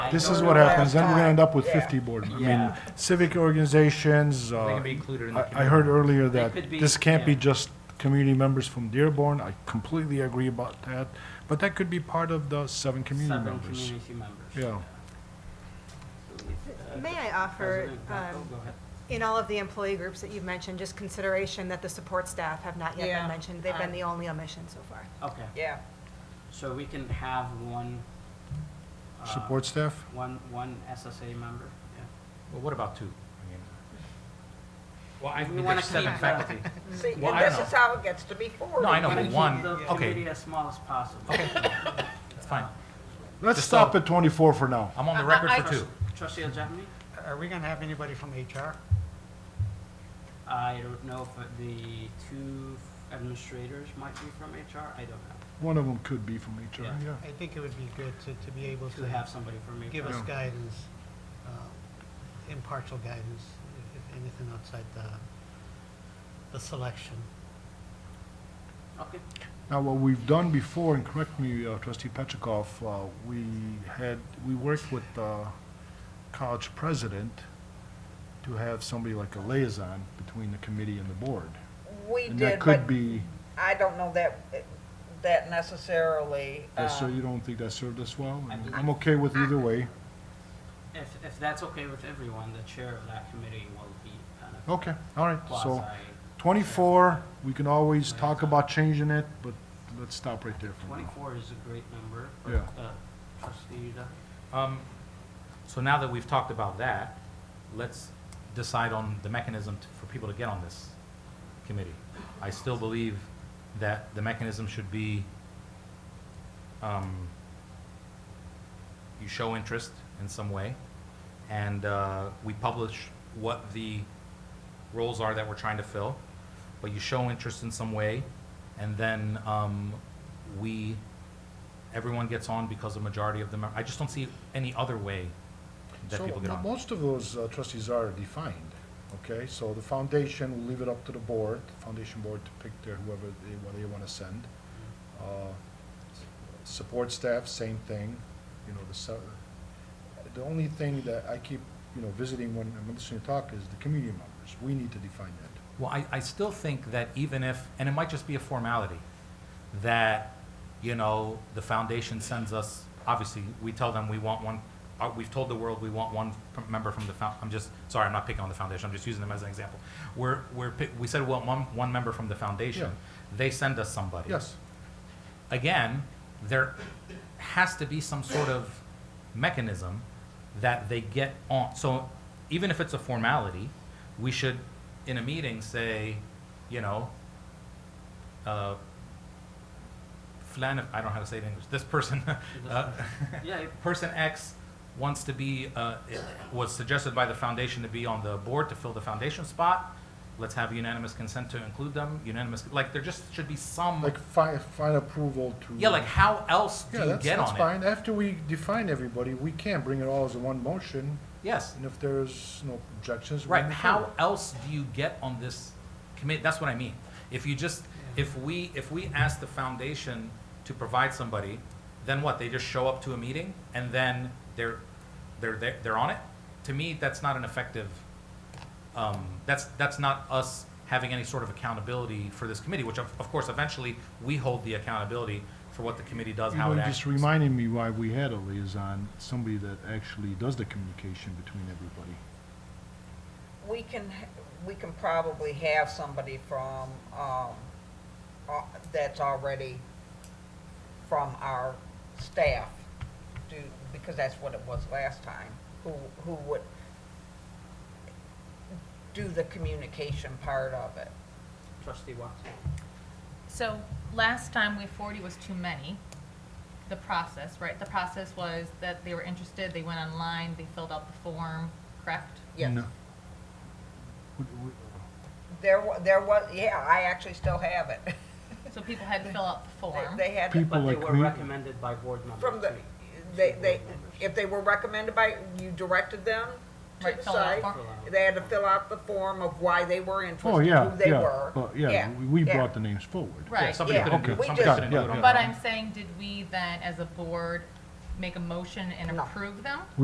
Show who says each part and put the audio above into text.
Speaker 1: This
Speaker 2: don't
Speaker 1: is
Speaker 2: know
Speaker 1: what
Speaker 2: why
Speaker 1: happens, then we're gonna end up with
Speaker 2: Yeah.
Speaker 1: fifty board, members. I mean,
Speaker 2: Yeah.
Speaker 1: civic organizations,
Speaker 3: They
Speaker 1: uh,
Speaker 3: can be included in the
Speaker 1: I,
Speaker 3: community.
Speaker 1: I heard earlier
Speaker 2: They
Speaker 1: that
Speaker 2: could be-
Speaker 1: this can't be
Speaker 2: yeah.
Speaker 1: just community members from Dearborn, I completely agree about that, but that could be part of the seven community
Speaker 2: Seven
Speaker 1: members.
Speaker 2: community members.
Speaker 1: Yeah,
Speaker 2: So it's, uh,
Speaker 4: May I offer,
Speaker 2: President Greco,
Speaker 4: um,
Speaker 2: go ahead.
Speaker 4: in all of the employee groups that you've mentioned, just consideration that the support staff have not yet
Speaker 5: Yeah.
Speaker 4: been mentioned. They've
Speaker 5: Uh,
Speaker 4: been the only omission so far.
Speaker 2: Okay,
Speaker 5: Yeah,
Speaker 2: so we can have one. uh,
Speaker 1: support staff?
Speaker 2: One, one SSA member, yeah.
Speaker 3: Well, what about two? I mean, Well, I
Speaker 2: We
Speaker 3: mean,
Speaker 2: wanna
Speaker 3: there's seven
Speaker 2: keep, uh,
Speaker 3: faculty.
Speaker 5: see,
Speaker 3: Well,
Speaker 5: and
Speaker 3: I don't
Speaker 5: this is
Speaker 3: know.
Speaker 5: how it gets to be four.
Speaker 6: Oh,
Speaker 3: No, I know,
Speaker 2: Wanna
Speaker 3: but
Speaker 2: keep
Speaker 3: one,
Speaker 2: the committee
Speaker 3: okay,
Speaker 2: as small as possible.
Speaker 3: okay, that's fine.
Speaker 1: Let's
Speaker 3: Just
Speaker 1: stop
Speaker 3: so-
Speaker 1: at twenty-four for now.
Speaker 3: I'm on the record
Speaker 6: I-
Speaker 3: for two.
Speaker 2: Trustee Aljamain?
Speaker 6: Are we gonna have anybody from HR?
Speaker 2: I don't know if the two administrators might be from HR, I don't know.
Speaker 1: One of them could be from HR,
Speaker 2: Yeah.
Speaker 1: yeah.
Speaker 6: I think it would be good to, to be able
Speaker 2: To have
Speaker 6: to
Speaker 2: somebody from HR.
Speaker 6: give us
Speaker 1: Yeah.
Speaker 6: guidance, uh, impartial guidance, if- if anything outside the, the selection.
Speaker 2: Okay,
Speaker 1: Now, what we've done before, and correct me, uh, trustee Petrikov, uh, we had, we worked with the college president to have somebody like a liaison between the committee and the board.
Speaker 5: We
Speaker 1: And that
Speaker 5: did,
Speaker 1: could
Speaker 5: but
Speaker 1: be,
Speaker 5: I don't know that, that necessarily.
Speaker 1: uh, so
Speaker 5: uh,
Speaker 1: you don't think that served us well?
Speaker 2: I
Speaker 1: I'm okay with either way.
Speaker 2: if, if that's okay with everyone, the chair of that committee will be kind of
Speaker 1: Okay, all right, Oh, so
Speaker 2: quasi.
Speaker 1: 24, we can always talk about changing it, but let's stop right there for now.
Speaker 2: Twenty-four is a great number.
Speaker 1: Yeah.
Speaker 2: Uh, Trustee uh, Yuda?
Speaker 3: Um, So now that we've talked about that, let's decide on the mechanism to- for people to get on this committee. I still believe that the mechanism should be, um, you show interest in some way, and uh, we publish what the roles are that we're trying to fill, but you show interest in some way, and then um, we, everyone gets on because the majority of them, are- I just don't see any other way that
Speaker 1: So,
Speaker 3: people get
Speaker 1: mo-
Speaker 3: on.
Speaker 1: most of those uh, trustees are defined, okay? So the foundation, will leave it up to the board, the foundation board to pick their, whoever they, what they wanna send. Uh, s- Support staff, same thing, you know, the, so- the only thing that I keep, you know, visiting when I'm listening to talk is the community members. We need to define that.
Speaker 3: Well, I, I still think that even if, and it might just be a formality, that, you know, the foundation sends us, obviously, we tell them we want one, uh, we've told the world we want one p- member from the found, I'm just, sorry, I'm not picking on the foundation, I'm just using them as an example. We're, we're, pick- we said, well, one, one member from the foundation, they send us somebody.
Speaker 1: Yes,
Speaker 3: again, there has to be some sort of mechanism that they get on. So even if it's a formality, we should, in a meeting, say, you know, uh, flan, I don't know how to say it in English, this person, uh,
Speaker 2: Yeah,
Speaker 3: person X wants to be, uh, i- was suggested by the foundation to be on the board to fill the foundation spot. Let's have unanimous consent to include them, unanimous, like, there just should be some.
Speaker 1: like fi- find approval to.
Speaker 3: Mm. Yeah, like how else do
Speaker 1: Yeah,
Speaker 3: you
Speaker 1: that's,
Speaker 3: get
Speaker 1: that's
Speaker 3: on it?
Speaker 1: fine. After we define everybody, we can bring it all as a one motion,
Speaker 3: Yes,
Speaker 1: and if there's no objections, we
Speaker 3: right.
Speaker 1: move
Speaker 3: How
Speaker 1: forward.
Speaker 3: else do you get on this committee? That's what I mean. If you just, if we, if we ask the foundation to provide somebody, then what? They just show up to a meeting and then they're, they're, they're, they're on it? To me, that's not an effective, um, that's, that's not us having any sort of accountability for this committee, which of, of course, eventually, we hold the accountability for what the committee does,
Speaker 1: You
Speaker 3: how
Speaker 1: know,
Speaker 3: it
Speaker 1: you
Speaker 3: acts.
Speaker 1: just reminded me why we had a liaison, somebody that actually does the communication between everybody.
Speaker 5: We can, h- we can probably have somebody from, um, uh, that's already from our staff do, because that's what it was last time, who, who would do the communication part of it.
Speaker 2: Trustee Watson?
Speaker 7: So last time we forty was too many. The process, right? The process was that they were interested, they went online, they filled out the form, correct?
Speaker 5: Yes.
Speaker 1: No. Would-
Speaker 3: uh,
Speaker 1: would-
Speaker 5: There, wa- there was, yeah, I actually still have it.
Speaker 7: So people had to fill out the
Speaker 5: They-
Speaker 7: form.
Speaker 5: They had, to-
Speaker 1: People
Speaker 2: But they
Speaker 1: like
Speaker 2: were
Speaker 1: me-
Speaker 2: recommended by board members.
Speaker 5: from the,
Speaker 2: too.
Speaker 5: they, they, if they were recommended by, you directed them to
Speaker 7: Right,
Speaker 5: the
Speaker 7: fill out
Speaker 5: site.
Speaker 7: the form.
Speaker 5: They had to fill out the form of why they were interested,
Speaker 1: Oh, yeah,
Speaker 5: who they
Speaker 1: yeah,
Speaker 5: were.
Speaker 1: but yeah, we- we
Speaker 5: yeah.
Speaker 1: brought the names forward.
Speaker 3: Yeah,
Speaker 7: Right,
Speaker 3: somebody
Speaker 5: yeah.
Speaker 3: couldn't do,
Speaker 5: Okay.
Speaker 3: it.
Speaker 5: We
Speaker 3: somebody
Speaker 5: just-
Speaker 3: couldn't do it
Speaker 1: Yeah,
Speaker 3: on
Speaker 1: yeah.
Speaker 3: their
Speaker 7: But
Speaker 3: own.
Speaker 7: I'm saying, did we then, as a board, make a motion and
Speaker 5: No.
Speaker 7: approve them?